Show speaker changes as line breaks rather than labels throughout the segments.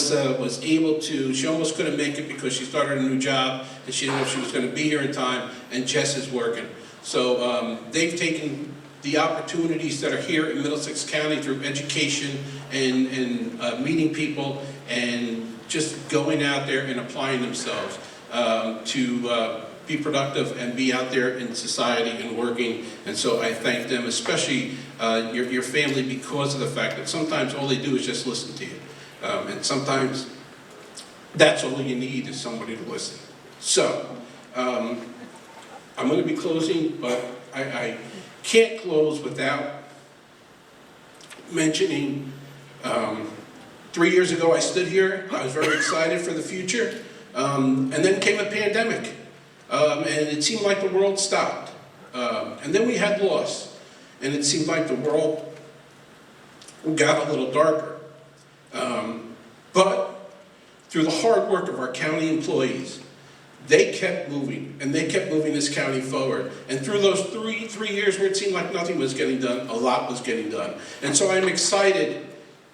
was, uh, was able to, she almost couldn't make it because she started a new job, and she didn't know if she was gonna be here in time, and Jess is working. So, um, they've taken the opportunities that are here in Middlesex County through education and, and, uh, meeting people, and just going out there and applying themselves, um, to, uh, be productive and be out there in society and working. And so I thank them, especially uh, your, your family, because of the fact that sometimes all they do is just listen to you. Um, and sometimes that's all you need is somebody to listen. So um, I'm going to be closing, but I, I can't close without mentioning um, three years ago I stood here. I was very excited for the future. Um, and then came a pandemic. Um, and it seemed like the world stopped. Um, and then we had loss, and it seemed like the world got a little darker. Um, but through the hard work of our county employees, they kept moving, and they kept moving this county forward. And through those three, three years where it seemed like nothing was getting done, a lot was getting done. And so I'm excited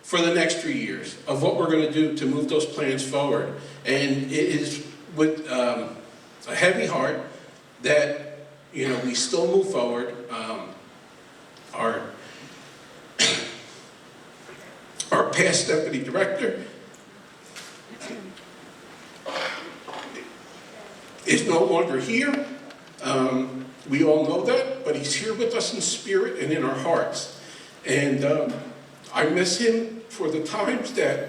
for the next three years of what we're gonna do to move those plans forward. And it is with, um, a heavy heart that, you know, we still move forward. Um, Our, our past deputy director is no longer here. Um, We all know that, but he's here with us in spirit and in our hearts. And um, I miss him for the times that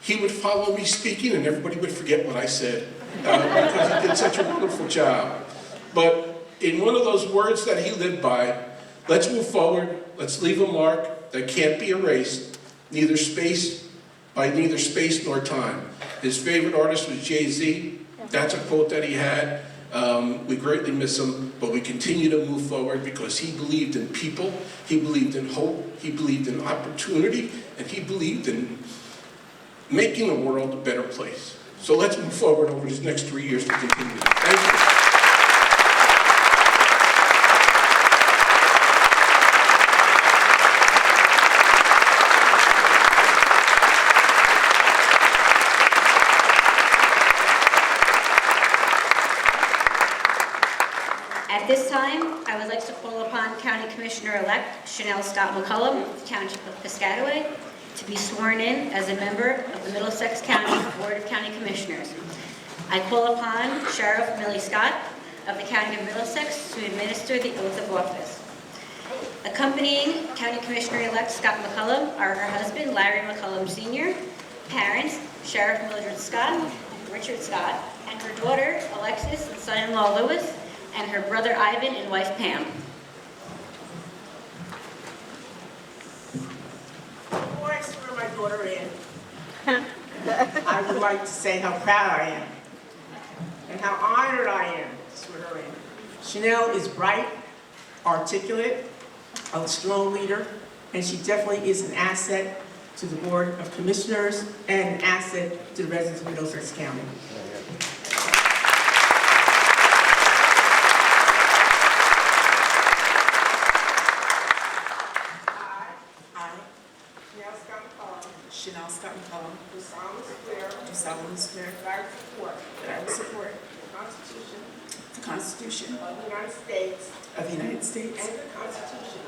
he would follow me speaking and everybody would forget what I said uh, because he did such a wonderful job. But in one of those words that he lived by, let's move forward, let's leave a mark that can't be erased, neither space, by neither space nor time. His favorite artist was Jay-Z. That's a quote that he had. Um, we greatly miss him, but we continue to move forward because he believed in people, he believed in hope, he believed in opportunity, and he believed in making the world a better place. So let's move forward over these next three years to continue. that. Thank you.
At this time, I would like to call upon County Commissioner-elect Chanel Scott McCullum, of Township of Piscataway, to be sworn in as a member of the Middlesex County Board of County Commissioners. I call upon Sheriff Millie Scott of the County of Middlesex to administer the oath of office. Accompanying County Commissioner-elect Scott McCullum are her husband Larry McCullum Sr., parents Sheriff Mildred Scott, Richard Scott, and her daughter Alexis and son-in-law Louis, and her brother Ivan and wife Pam.
Before I swear my daughter in, I would like to say how proud I am and how honored I am to swear her in. Chanel is bright, articulate, a strong leader, and she definitely is an asset to the Board of Commissioners and an asset to the residents of Middlesex County. I, I, Chanel Scott McCollum. Chanel Scott McCollum. Do solemnly swear. Do solemnly swear. That I will support. That I will support. The Constitution.
The Constitution
Of the United States.
of the United States
And the Constitution.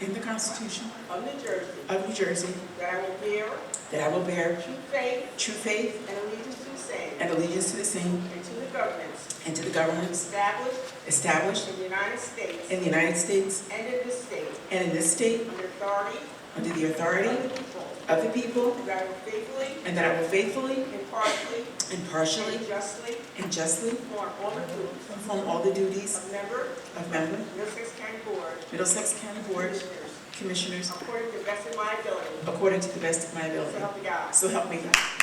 and the Constitution
Of New Jersey.
of New Jersey,
That I will bear
that I will bear
true faith
true faith
and allegiance to the same.
and allegiance to the same
And to the governments.
and to the governments
Established
established
in the United States.
in the United States
And in this state.
and in this state
Under authority.
under the
Of
authority
the people.
of the people,
That I will faithfully.
and that I will faithfully,
Impartially.
impartially,
And justly.
and justly
Perform all the duties.
perform all the duties
Of member.
of member
Middlesex County Board.
Middlesex County
of
Board
Commissioners.
of Commissioners
According to the best of my ability.
according to the best of my
So
ability.
help me God.
So help me God.